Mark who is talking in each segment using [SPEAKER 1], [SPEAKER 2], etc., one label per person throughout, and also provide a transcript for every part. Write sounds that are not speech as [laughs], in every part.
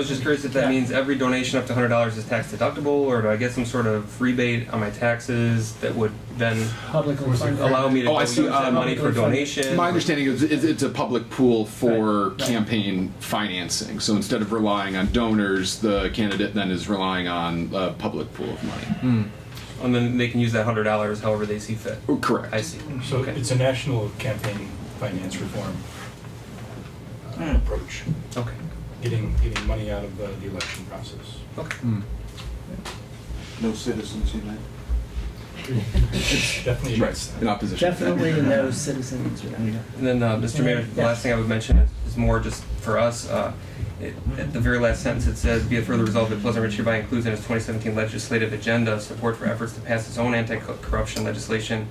[SPEAKER 1] I was just curious if that means every donation up to hundred dollars is tax deductible, or do I get some sort of rebate on my taxes that would then
[SPEAKER 2] Publicly funded.
[SPEAKER 1] allow me to
[SPEAKER 3] Oh,
[SPEAKER 1] go
[SPEAKER 3] I
[SPEAKER 1] use
[SPEAKER 3] see.
[SPEAKER 1] that
[SPEAKER 3] Um,
[SPEAKER 1] money for donation?
[SPEAKER 3] My understanding is it's, it's a public pool for
[SPEAKER 2] Right, right.
[SPEAKER 3] campaign financing. So instead of relying on donors, the candidate then is relying on a public pool of money.
[SPEAKER 1] and then they can use that hundred dollars however they see fit.
[SPEAKER 3] Oh, Correct.
[SPEAKER 1] I see.
[SPEAKER 4] So it's a national campaign finance reform uh, approach,
[SPEAKER 1] Okay.
[SPEAKER 4] getting, getting money out of the the election process.
[SPEAKER 1] Okay.
[SPEAKER 5] No Citizens United.
[SPEAKER 4] Definitely against
[SPEAKER 3] In
[SPEAKER 4] that.
[SPEAKER 3] opposition. to that.
[SPEAKER 2] Definitely no citizens. united.
[SPEAKER 1] And then, uh, Mr. Mayor, the
[SPEAKER 2] Yeah.
[SPEAKER 1] last thing I would mention is, is more just for us. Uh, it, at the very last sentence, it says, "Be it further resolved that Pleasant Ridge hereby includes in its 2017 legislative agenda support for efforts to pass its own anti-corruption legislation,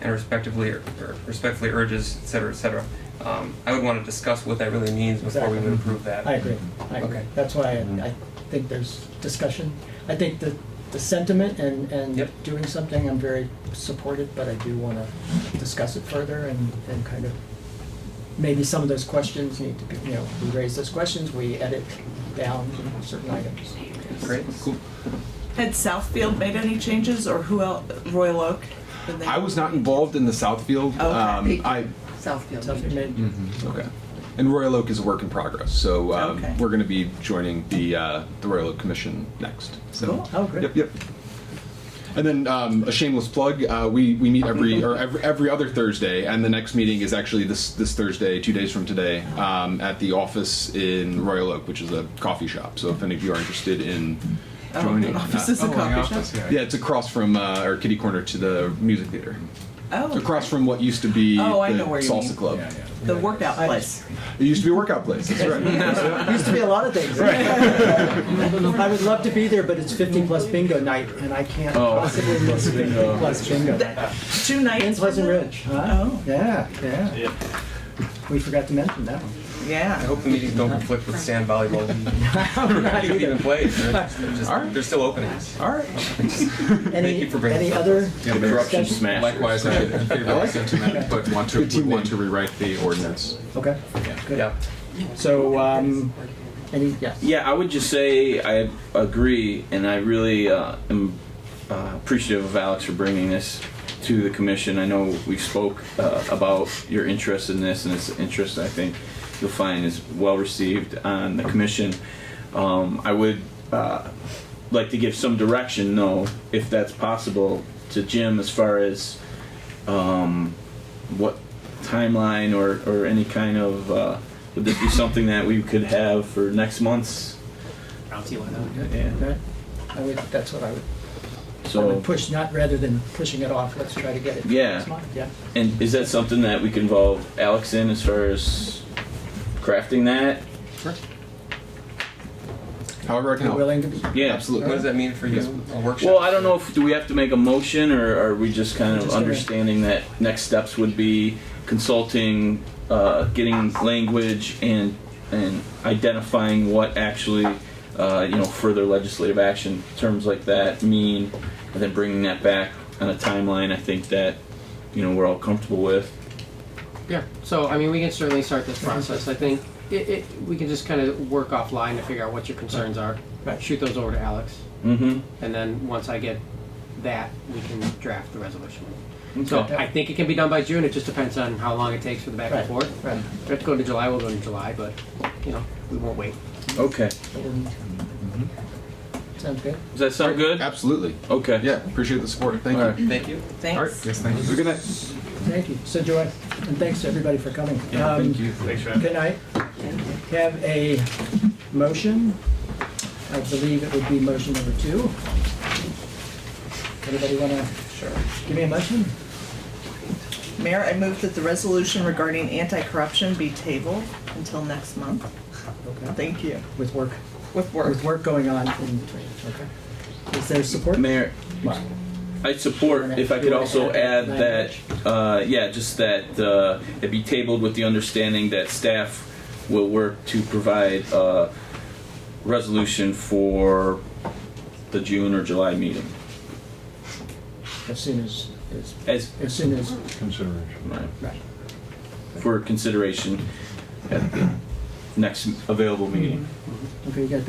[SPEAKER 1] and respectively, or respectfully urges, et cetera, et cetera." Um, I would want to discuss what that really means before we would approve that.
[SPEAKER 2] I agree, I agree.
[SPEAKER 1] Okay. Mm-hmm.
[SPEAKER 2] That's why I, I think there's discussion. I think the, the sentiment and, and
[SPEAKER 1] Yep.
[SPEAKER 2] doing something, I'm very supportive, but I do wanna discuss it further and, and kind of, maybe some of those questions need to be, you know, we raise those questions, we edit down certain items.
[SPEAKER 1] Great. Cool.
[SPEAKER 6] Had Southfield made any changes, or who else? Royal Oak? Did they-
[SPEAKER 3] I was not involved in the Southfield.
[SPEAKER 6] Okay.
[SPEAKER 3] Um, I
[SPEAKER 2] So if you
[SPEAKER 6] Southfield.
[SPEAKER 2] made-
[SPEAKER 3] okay. And Royal Oak is a work in progress, so um,
[SPEAKER 6] Okay.
[SPEAKER 3] we're going to be joining the uh, the Royal Oak Commission next. So,
[SPEAKER 6] Cool.
[SPEAKER 2] Oh, great.
[SPEAKER 3] Yep, yep. And then um, a shameless plug: uh, we we meet every or every, every other Thursday, and the next meeting is actually this this Thursday, two days from today, um, at the office in Royal Oak, which is a coffee shop. So if any of you are interested in
[SPEAKER 6] Oh,
[SPEAKER 3] joining,
[SPEAKER 6] the office is a
[SPEAKER 3] uh,
[SPEAKER 6] coffee shop.
[SPEAKER 3] yeah, it's across from uh, our kitty corner to the music theater,
[SPEAKER 6] Oh,
[SPEAKER 3] across from what used to be
[SPEAKER 6] Oh, I
[SPEAKER 3] the
[SPEAKER 6] know where you
[SPEAKER 3] salsa
[SPEAKER 6] mean.
[SPEAKER 3] club.
[SPEAKER 4] Yeah, yeah.
[SPEAKER 6] the workout
[SPEAKER 2] I-
[SPEAKER 6] place.
[SPEAKER 3] It used to be a workout place. That's
[SPEAKER 6] [laughs]
[SPEAKER 3] right.
[SPEAKER 2] Used to be a lot of things. I would love to be there, but it's fifty plus bingo night, and I can't
[SPEAKER 3] Oh.
[SPEAKER 2] possibly miss fifty plus bingo night.
[SPEAKER 6] That- Two nights.
[SPEAKER 2] In Pleasant
[SPEAKER 6] was it?
[SPEAKER 2] Ridge, huh?
[SPEAKER 6] Oh,
[SPEAKER 2] Yeah, yeah. We forgot to mention that one.
[SPEAKER 1] I
[SPEAKER 6] yeah.
[SPEAKER 1] hope the meetings don't conflict with sand
[SPEAKER 2] [laughs]
[SPEAKER 1] volleyball.
[SPEAKER 2] Not
[SPEAKER 1] They don't even
[SPEAKER 2] either.
[SPEAKER 1] play. They're, just, they're still
[SPEAKER 2] [laughs]
[SPEAKER 1] openings.
[SPEAKER 3] All right.
[SPEAKER 1] Thank
[SPEAKER 2] Any,
[SPEAKER 1] you for bringing
[SPEAKER 2] any
[SPEAKER 1] this up.
[SPEAKER 2] other? discussion?
[SPEAKER 7] Corruption smash.
[SPEAKER 3] Likewise, I should favor
[SPEAKER 2] like it.
[SPEAKER 3] sentiment, but want to would want to rewrite the ordinance.
[SPEAKER 2] Okay, good.
[SPEAKER 1] Yeah.
[SPEAKER 2] So, um, any, yes.
[SPEAKER 7] Yeah, I would just say I agree, and I really uh, am uh, appreciative of Alex for bringing this to the commission. I know we spoke uh, about your interest in this, and it's interest I think you'll find is well received on the commission. Um, I would uh, like to give some direction, though, if that's possible, to Jim as far as um, what timeline or, or any kind of uh, would this be something that we could have for next month's yeah
[SPEAKER 2] Okay. I would, that's what I would, I
[SPEAKER 7] so
[SPEAKER 2] would push, not rather than pushing it off, let's try to get it.
[SPEAKER 7] Yeah.
[SPEAKER 2] this month, Yeah.
[SPEAKER 7] and is that something that we can involve alex in as far as crafting that
[SPEAKER 3] However, I can
[SPEAKER 2] You're
[SPEAKER 3] help.
[SPEAKER 2] willing to be?
[SPEAKER 7] yeah
[SPEAKER 1] What does that mean for you? A workshop.
[SPEAKER 7] well i don't know if do we have to make a motion or are we just kind of
[SPEAKER 2] Just gonna-
[SPEAKER 7] understanding that next steps would be consulting uh, getting language and and identifying what actually uh, you know further legislative action terms like that mean and then bringing that back on a timeline i think that you know we're all comfortable with
[SPEAKER 8] Yeah, so I mean, we can certainly start this process. I think it, it, we can just kind of work offline to figure out what your concerns are.
[SPEAKER 2] Right.
[SPEAKER 8] Shoot those over to Alex,
[SPEAKER 7] mm-hmm
[SPEAKER 8] and then once I get that, we can draft the resolution. So
[SPEAKER 7] Okay.
[SPEAKER 8] I think it can be done by June. It just depends on how long it takes for the back
[SPEAKER 2] Right,
[SPEAKER 8] and forth.
[SPEAKER 2] right.
[SPEAKER 8] If we have to go to July, we'll go to July, but you know, we won't wait.
[SPEAKER 7] Okay.
[SPEAKER 1] Mm-hmm.
[SPEAKER 2] Sounds good.
[SPEAKER 7] Does that sound good?
[SPEAKER 3] Absolutely.
[SPEAKER 7] Okay.
[SPEAKER 3] Yeah, appreciate the support. Thank
[SPEAKER 7] All right.
[SPEAKER 3] you.
[SPEAKER 1] Thank you.
[SPEAKER 3] All right.
[SPEAKER 6] Thanks.
[SPEAKER 3] Yes, thank you. Good night.
[SPEAKER 2] Thank you. So Joy, and thanks to everybody for coming. Um, Good night. Have a motion. I believe it would be motion number two. Anybody want to? Sure. Give me a motion?
[SPEAKER 6] Mayor, I move that the resolution regarding anti-corruption be tabled until next month.
[SPEAKER 2] Okay.
[SPEAKER 6] Thank you.
[SPEAKER 2] With work,
[SPEAKER 6] With work.
[SPEAKER 2] with work going on in between, okay. Is there support?
[SPEAKER 7] Mayor,
[SPEAKER 2] Wow.
[SPEAKER 7] I support, if I could also add that, uh, yeah, just that uh, it be tabled with the understanding that staff will work to provide a resolution for the June or July meeting.
[SPEAKER 2] As soon as, as-
[SPEAKER 7] As,
[SPEAKER 2] as soon as,
[SPEAKER 5] Consideration.
[SPEAKER 7] right,
[SPEAKER 2] right.
[SPEAKER 7] for consideration at the next available meeting.
[SPEAKER 2] Okay, you got